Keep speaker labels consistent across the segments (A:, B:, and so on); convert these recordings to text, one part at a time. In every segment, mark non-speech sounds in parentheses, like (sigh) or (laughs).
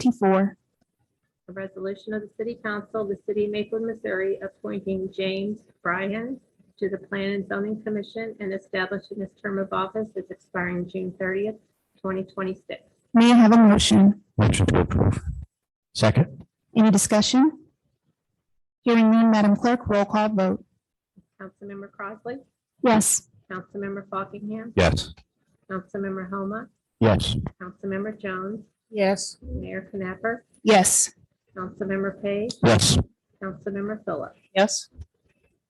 A: 24.
B: A resolution of the City Council of the City of Maplewood, Missouri, appointing James Bryan to the Plan and Zoning Commission and establishing his term of office as expiring June thirtieth, twenty twenty-six.
A: May I have a motion?
C: Motion to approve. Second.
A: Any discussion? Hearing none, Madam Clerk, roll call vote.
B: Councilmember Crossley,
A: Yes.
B: Councilmember Fockingham,
C: Yes.
B: Councilmember Homa,
C: Yes.
B: Councilmember Jones,
D: yes,
B: Mayor Knapper,
A: Yes.
B: Councilmember Page,
C: Yes.
B: Councilmember Phillips.
D: yes,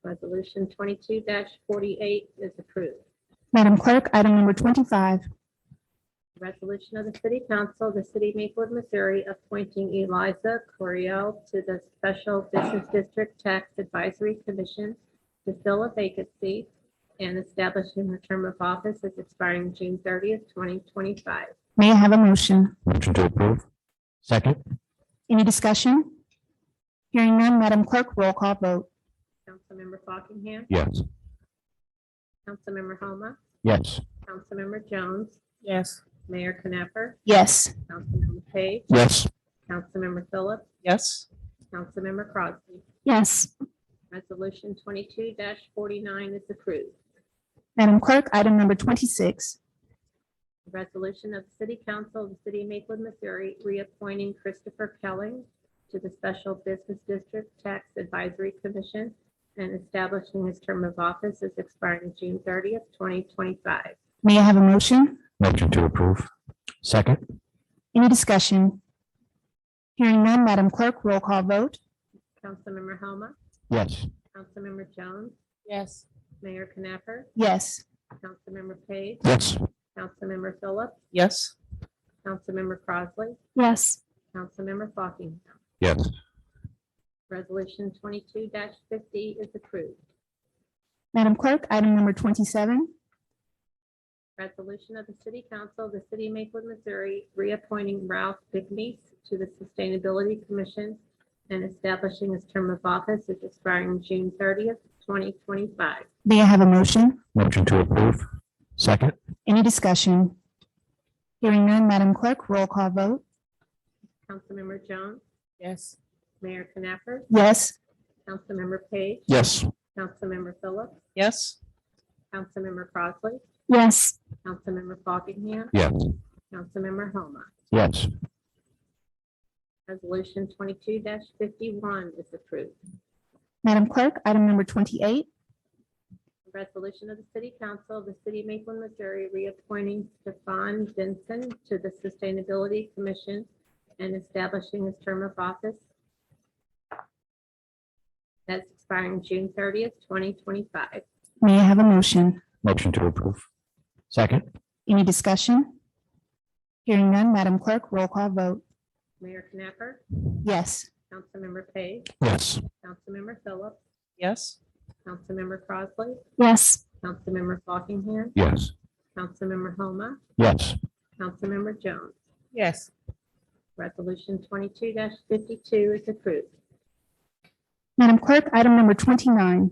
B: Resolution twenty-two forty-eight is approved.
A: Madam Clerk, item number 25.
B: Resolution of the City Council of the City of Maplewood, Missouri, appointing Eliza Coriel to the Special Business District Tax Advisory Commission to fill a vacancy and establishing her term of office as expiring June thirtieth, twenty twenty-five.
A: May I have a motion?
C: Motion to approve. Second.
A: Any discussion? Hearing none, Madam Clerk, roll call vote.
B: Councilmember Fockingham,
C: Yes.
B: Councilmember Homa,
C: Yes.
B: Councilmember Jones,
D: yes,
B: Mayor Knapper,
A: Yes.
B: Councilmember Page,
C: Yes.
B: Councilmember Phillips,
D: yes,
B: Councilmember Crosby.
A: Yes.
B: Resolution twenty-two forty-nine is approved.
A: Madam Clerk, item number 26.
B: A Resolution of the City Council of the City of Maplewood, Missouri, reappointing Christopher Kelling to the Special Business District Tax Advisory Commission and establishing his term of office as expiring June thirtieth, twenty twenty-five.
A: May I have a motion?
C: Motion to approve. Second.
A: Any discussion? Hearing none, Madam Clerk, roll call vote.
B: Councilmember Homa,
C: Yes.
B: Councilmember Jones,
D: yes,
B: Mayor Knapper,
A: Yes.
B: Councilmember Page,
C: Yes.
B: Councilmember Phillips,
D: yes,
B: Councilmember Crossley,
A: Yes.
B: Councilmember Fockingham.
C: Yes.
B: Resolution twenty-two fifty is approved.
A: Madam Clerk, item number 27.
B: Resolution of the City Council of the City of Maplewood, Missouri, reappointing Ralph Bigney to the Sustainability Commission and establishing his term of office as expiring June thirtieth, twenty twenty-five.
A: May I have a motion?
C: Motion to approve. Second.
A: Any discussion? Hearing none, Madam Clerk, roll call vote.
B: Councilmember Jones,
D: yes,
B: Mayor Knapper,
A: Yes.
B: Councilmember Page,
C: Yes.
B: Councilmember Phillips,
D: yes,
B: Councilmember Crossley,
A: Yes.
B: Councilmember Fockingham,
C: Yes.
B: Councilmember Homa.
C: Yes.
B: Resolution twenty-two fifty-one is approved.
A: Madam Clerk, item number 28.
B: Resolution of the City Council of the City of Maplewood, Missouri, reappointing Stefan Vincent to the Sustainability Commission and establishing his term of office. That's expiring June thirtieth, twenty twenty-five.
A: May I have a motion?
C: Motion to approve. Second.
A: Any discussion? Hearing none, Madam Clerk, roll call vote.
B: Mayor Knapper,
A: Yes.
B: Councilmember Page,
C: Yes.
B: Councilmember Phillips,
D: yes,
B: Councilmember Crossley,
A: Yes.
B: Councilmember Fockingham,
C: Yes.
B: Councilmember Homa,
C: Yes.
B: Councilmember Jones.
D: yes,
B: Resolution twenty-two fifty-two is approved.
A: Madam Clerk, item number 29.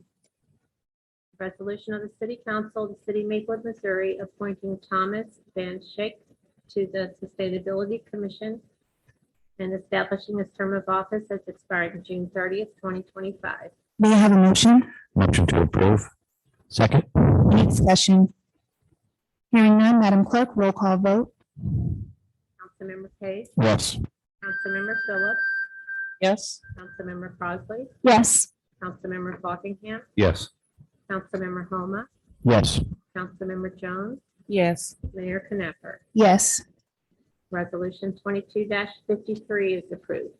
B: Resolution of the City Council of the City of Maplewood, Missouri, appointing Thomas Van Schick to the Sustainability Commission and establishing his term of office as expiring June thirtieth, twenty twenty-five.
A: May I have a motion?
C: Motion to approve. Second.
A: Any discussion? Hearing none, Madam Clerk, roll call vote.
B: Councilmember Page,
C: Yes.
B: Councilmember Phillips,
D: yes,
B: Councilmember Crossley,
A: Yes.
B: Councilmember Fockingham,
C: Yes.
B: Councilmember Homa,
C: Yes.
B: Councilmember Jones,
D: yes,
B: Mayor Knapper.
A: Yes.
B: Resolution twenty-two fifty-three is approved.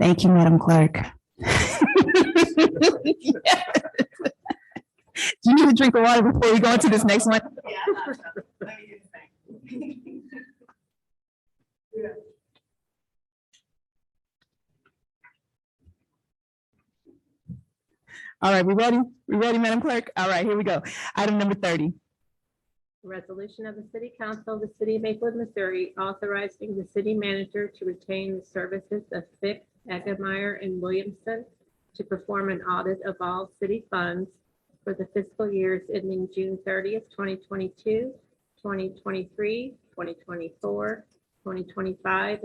A: Thank you, Madam Clerk. (laughs) Do you need a drink of water before we go into this next one? All right, we ready? We ready, Madam Clerk? All right, here we go. Item number thirty.
B: Resolution of the City Council of the City of Maplewood, Missouri, authorizing the city manager to retain the services of Fick, Egemeyer, and Williamson to perform an audit of all city funds for the fiscal years ending June thirtieth, twenty 2023, 2024, twenty twenty-five,